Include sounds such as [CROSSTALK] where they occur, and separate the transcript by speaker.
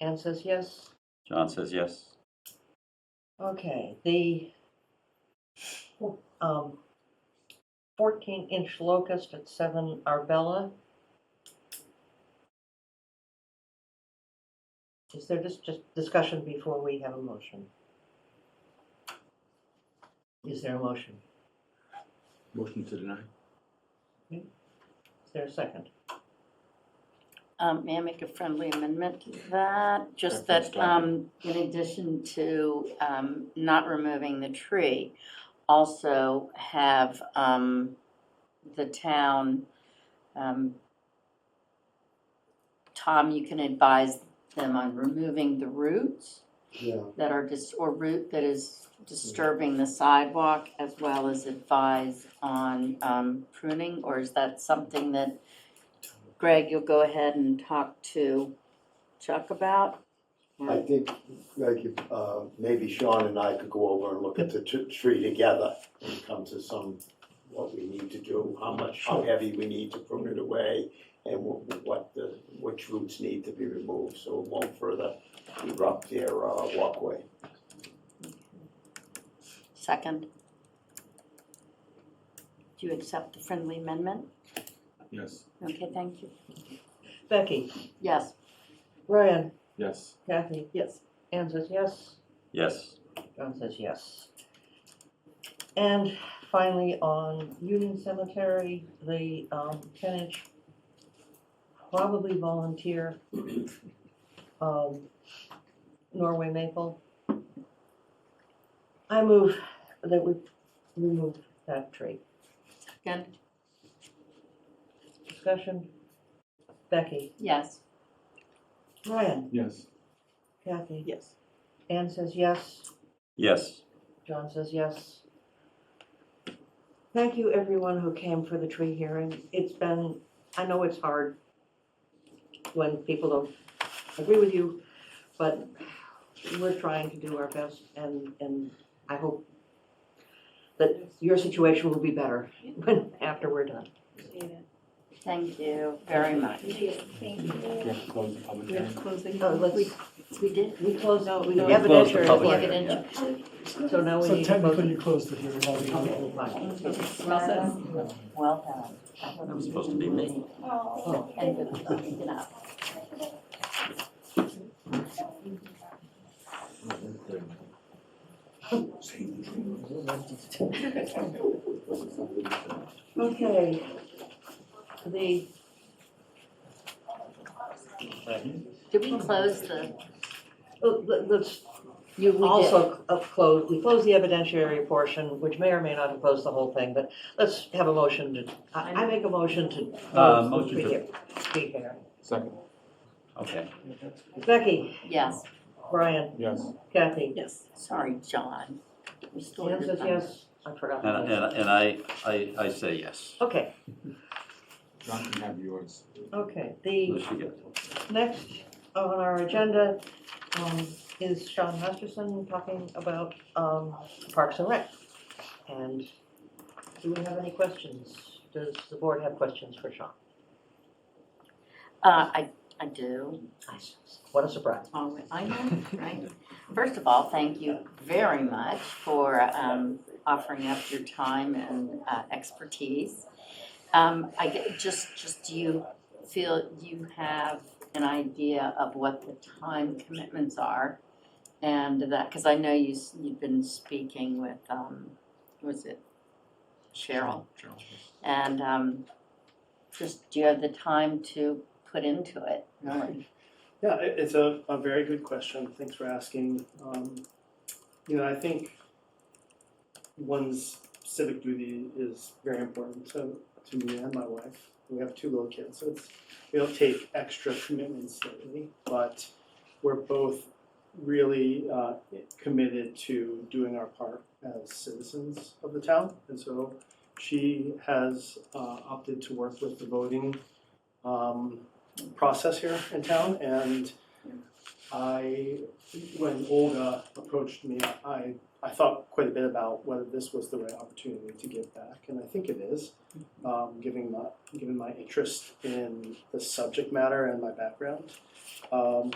Speaker 1: Anne says yes.
Speaker 2: John says yes.
Speaker 1: Okay, the um, fourteen inch locust at seven Arbella. Is there just, just discussion before we have a motion? Is there a motion?
Speaker 3: Motion to deny.
Speaker 1: Is there a second?
Speaker 4: Um, may I make a friendly amendment to that? Just
Speaker 2: That feels
Speaker 4: that, um, in addition to, um, not removing the tree, also have, um, the town, um, Tom, you can advise them on removing the roots
Speaker 5: Yeah,
Speaker 4: that are just, or root that is disturbing the sidewalk as well as advise on, um, pruning? Or is that something that Greg, you'll go ahead and talk to Chuck about? Hmm.
Speaker 5: I think, like, if, uh, maybe Sean and I could go over and look at the tr- tree together and come to some, what we need to do, how much, how heavy we need to prune it away, and what, what the, which roots need to be removed, so it won't further erupt their, uh, walkway.
Speaker 4: Second? Do you accept the friendly amendment?
Speaker 3: Yes.
Speaker 4: Okay, thank you.
Speaker 1: Becky,
Speaker 4: Yes,
Speaker 1: Ryan,
Speaker 3: Yes.
Speaker 1: Kathy,
Speaker 6: Yes.
Speaker 1: Anne says yes.
Speaker 2: Yes.
Speaker 1: John says yes. And finally, on Union Cemetery, the um, ten-inch, probably volunteer, [CLEARS THROAT] um, Norway maple. I move that we remove that tree.
Speaker 4: second?
Speaker 1: Discussion? Becky?
Speaker 4: Yes.
Speaker 1: Ryan?
Speaker 3: Yes.
Speaker 1: Kathy?
Speaker 6: Yes.
Speaker 1: Anne says yes.
Speaker 2: Yes.
Speaker 1: John says yes. Thank you, everyone who came for the tree hearing. It's been, I know it's hard when people don't agree with you, but we're trying to do our best and, and I hope that your situation will be better when, after we're done.
Speaker 4: Thank you very much.
Speaker 3: We have to close the public
Speaker 6: We have
Speaker 3: hearing.
Speaker 6: to close the
Speaker 1: Oh,
Speaker 6: hearing.
Speaker 1: let's,
Speaker 4: We did.
Speaker 1: we close out, we
Speaker 6: We
Speaker 1: have
Speaker 2: closed the public
Speaker 1: evidentiary.
Speaker 2: hearing.
Speaker 1: So now we
Speaker 7: So
Speaker 1: need to vote.
Speaker 7: technically, you closed the hearing already.
Speaker 1: Okay, fine.
Speaker 6: Well said.
Speaker 4: Well done.
Speaker 2: That was supposed to be me.
Speaker 1: Oh,
Speaker 4: And good luck. Good luck.
Speaker 1: Okay. The
Speaker 4: Did we close the?
Speaker 1: Well, Oh, let- Let's
Speaker 4: You,
Speaker 1: also up close, we close the evidentiary portion, which may or may not have closed the whole thing, but let's have a motion to, I I make a motion to.
Speaker 2: Uh,
Speaker 1: close the
Speaker 2: motion to-
Speaker 1: pre-hear- pre-hearing.
Speaker 3: Second.
Speaker 2: Okay.
Speaker 1: Becky,
Speaker 4: Yes,
Speaker 1: Brian,
Speaker 3: Yes.
Speaker 1: Kathy,
Speaker 6: Yes.
Speaker 4: sorry, John. We still have
Speaker 1: Dan
Speaker 4: your
Speaker 1: says
Speaker 4: thumbs.
Speaker 1: yes, I forgot.
Speaker 2: And, and, and I, I, I say yes.
Speaker 1: Okay,
Speaker 3: John can have yours.
Speaker 1: okay, the
Speaker 2: Unless you get-
Speaker 1: next on our agenda um, is Sean Masterson talking about um, Parks and Rec. And do we have any questions? Does the board have questions for Sean?
Speaker 4: Uh, I, I do.
Speaker 1: What a surprise.
Speaker 4: Oh, I know, right? First of all, thank you very much for um, offering up your time and uh, expertise. Um, I get, just, just do you feel you have an idea of what the time commitments are? And that, because I know you, s- you've been speaking with, um, was it Cheryl? And um, just, do you have the time to put into it, really?
Speaker 8: Yeah, it, it's a, a very good question. Thanks for asking. Um, you know, I think one's civic duty is very important to, to me and my wife. We have two little kids, so it's, we don't take extra commitments lately, but we're both really uh, committed to doing our part as citizens of the town. And so she has uh, opted to work with the voting um, process here in town, and I, when Olga approached me, I, I thought quite a bit about whether this was the right opportunity to give back, and I think it is, um, given my, given my interest in the subject matter and my background. Um,